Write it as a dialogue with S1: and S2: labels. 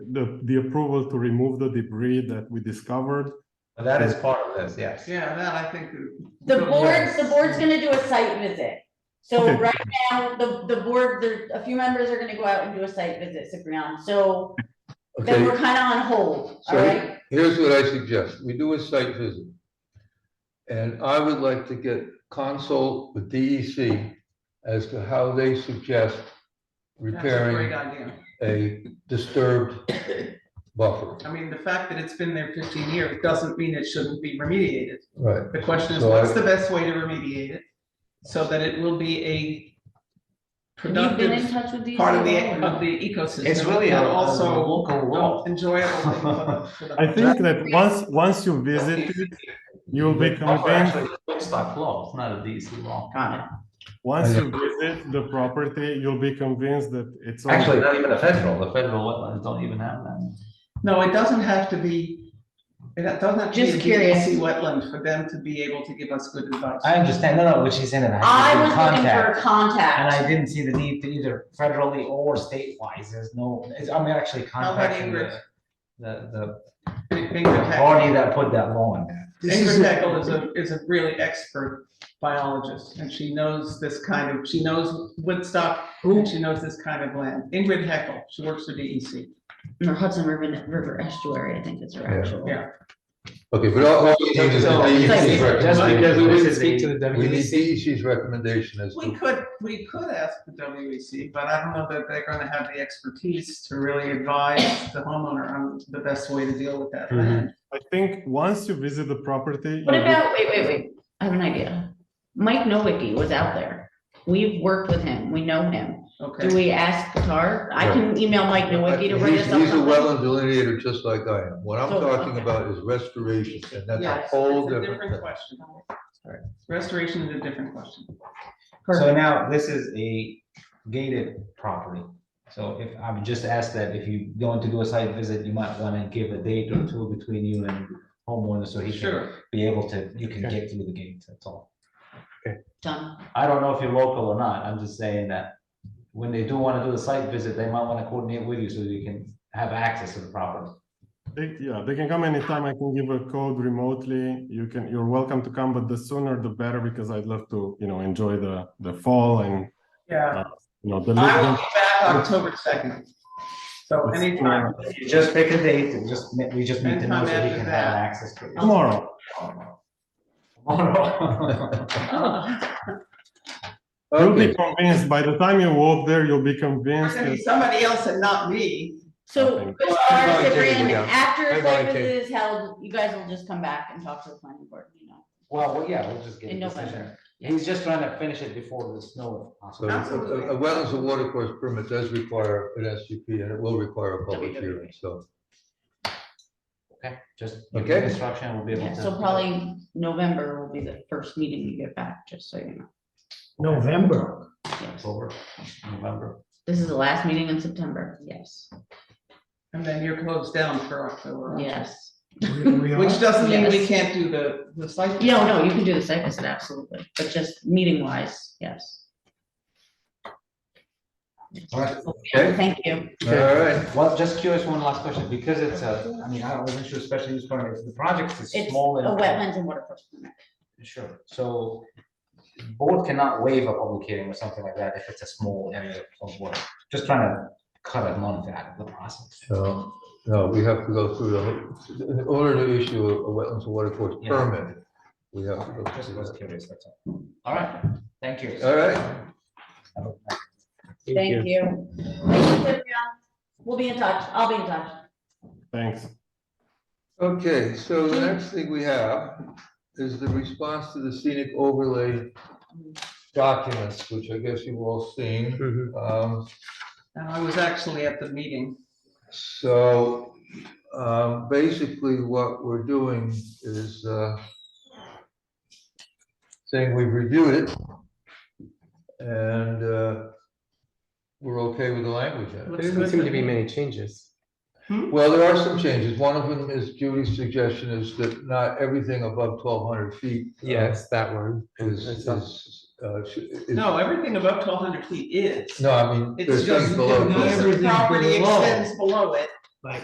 S1: the, the approval to remove the debris that we discovered.
S2: But That is part of this, yes.
S3: Yeah, that I think. is-
S4: The board,
S3: Yes.
S4: the board's gonna do a site visit. So
S1: Okay.
S4: right now, the, the board, there, a few members are gonna go out and do a site visit, Cipriano, so then
S5: Okay,
S4: we're kinda on hold,
S5: So-
S4: alright?
S5: here's what I suggest. We do a site visit. And I would like to get consult with DEC as to how they suggest
S3: That's a great
S5: repairing
S3: idea.
S5: a disturbed buffer.
S3: I mean, the fact that it's been there fifteen years doesn't mean it shouldn't be remediated.
S5: Right,
S3: The question is,
S5: So
S3: what's
S5: I-
S3: the best way to remediate it? So that it will be a
S4: Have you been in
S3: productive
S4: touch with these?
S3: part of the,
S4: people?
S3: of the ecosystem.
S2: It's really a,
S3: and
S2: also
S3: Also,
S2: local wall.
S3: enjoyable. thing for the- for the-
S1: I think that once, once you visit, it, you will be
S2: Buffer
S1: convinced,
S2: actually It's by flow, it's not a DC wall.
S1: once you visit the property, you'll be convinced that it's. on-
S2: Actually, not even a federal, the federal wetlands don't even have that.
S3: No, it doesn't have to be, it doesn't have to be
S4: Just
S3: a
S4: curious.
S3: DEC wetland for them to be able to give us good advice.
S6: I understand, no, no, which is in it.
S4: I
S6: have
S4: was
S6: to
S4: looking for
S6: contact, And
S4: a contact.
S6: I didn't see the need to either federally or state-wise, there's no, it's, I'm actually contacting
S3: Ingrid.
S6: the, the,
S3: Ingrid
S6: the party
S3: Heckel-
S6: that put that law in there.
S3: Ingrid Heckel is a, is a really expert biologist, and she knows this kind of, she knows Woodstock, and she knows this kind of land. Ingrid Heckel, she works for E DEC.
S4: Or Hudson River, River Estuary, I think is her
S5: Yeah.
S4: actual.
S3: Yeah.
S5: okay, but all, all we need is the
S2: So-
S5: DEC's
S2: Just because we
S5: recommendation.
S2: didn't speak to the
S5: We need
S2: WDC.
S5: DEC's recommendation as
S3: We
S5: to,
S3: could, we could ask the WEC, but I don't know that they're gonna have the expertise to really advise the homeowner on the best way to deal with that land.
S1: I think once you visit the property.
S4: What
S1: you'll be-
S4: about, wait, wait, wait, I have an idea. Mike Nowicki was out there. We've worked with him, we know him.
S3: Okay.
S4: Do we ask Qatar? I can email Mike Nowicki to write
S5: Uh, he's,
S4: us up.
S5: he's a
S4: something.
S5: wetland delineator just like I am. What I'm
S4: So,
S5: talking
S4: okay.
S5: about is restoration, and that's a
S3: Yes,
S5: whole
S3: it's a
S5: different thing.
S3: question.
S6: Sorry.
S3: Restoration is a different question.
S6: So now, this is a gated property, so if, I would just ask that if you going to do a site visit, you might wanna give a date or two between you and homeowner, so he can
S3: Sure,
S6: be able to, you can get through the gate, that's all.
S4: Done.
S6: I don't know if you're local or not, I'm just saying that when they do wanna do the site visit, they might wanna coordinate with you so you can have access to the property.
S1: They, yeah, they can come anytime. I can give a code remotely. You can, you're welcome to come, but the sooner the better because I'd love to, you know, enjoy the, the fall and,
S3: yeah.
S1: you know, the.
S3: I will
S1: living-
S3: be back October second. So
S1: It's-
S3: anytime,
S6: If You just pick a date, and just, ma- we just need to know so
S3: Anytime
S6: we
S3: after
S6: can have
S3: that.
S6: access to it.
S1: Tomorrow.
S6: Tomorrow.
S1: You'll be
S5: Okay,
S1: convinced, by the time you walk there, you'll be
S3: there's
S1: convinced.
S3: gonna be
S1: that-
S3: somebody else and not me.
S4: So,
S1: Okay.
S4: as far
S5: I
S4: as
S5: volunteer to
S4: Ciprian,
S5: go.
S4: after
S5: I
S4: a site
S5: volunteer.
S4: visit is held, you guys will just come back and talk to the planning board, you know?
S6: Well, well, yeah, we'll just get a
S4: In
S6: decision.
S4: November.
S6: He's just trying to finish it before the snow. if
S5: so
S6: possible.
S5: a a- a wetlands and water course permit does require an SUP, and it will require a public
S4: WWA.
S5: hearing, so.
S6: Okay, just. give
S5: Okay.
S6: the Instruction will be able
S4: Yeah,
S6: to.
S4: so probably November will be the first meeting you get back, just so you know.
S6: November.
S4: Yes.
S6: October, November.
S4: This is the last meeting in September, yes,
S3: And then you're closed down for October.
S4: yes.
S3: Which doesn't mean we
S4: Yes.
S3: can't do the, the site. visit.
S4: No, no, you can do the site visit, absolutely, but just meeting wise, yes.
S6: All right.
S4: Okay, Thank you.
S5: All right,
S6: Well, just curious, one last question, because it's a, I mean, I wasn't sure especially use permit, if the project is
S4: It's a
S6: small. and-
S4: wetlands and water course permit.
S6: Sure, so board cannot waive a public hearing or something like that if it's a small area of work. Just trying to cut a month out of the process.
S5: so, uh, no, we have to go through the, whole- in order to issue a a wetlands and water course
S6: Yeah.
S5: permit, we have to go
S6: Okay, Just
S5: through
S6: was
S5: that.
S6: curious, that's all. All right, thank you.
S5: All right,
S4: Thank you. Thank you, Ciprian. We'll be in touch, I'll be in touch.
S1: Thanks.
S5: okay, so the next thing we have is the response to the scenic overlay documents, which I guess you've all seen. Um,
S3: And I was actually at the meeting.
S5: So um, basically, what we're doing is uh, saying we've reviewed it and uh, we're okay with the language. in it.
S3: Looks
S7: There
S3: good
S7: doesn't seem to
S3: me.
S7: be many changes.
S5: Well, there are some changes. One of them is Judy's suggestion is that not everything above twelve hundred feet. uh,
S7: Yes, that one. And
S5: Is,
S7: it's
S5: is,
S7: not-
S5: uh, sh- is-
S3: No, everything above twelve hundred feet is.
S5: no, I mean,
S3: It's
S5: there's
S3: just,
S5: things below.
S3: not
S5: 1200.
S3: everything
S7: Everything
S3: property
S7: below.
S3: extends below it,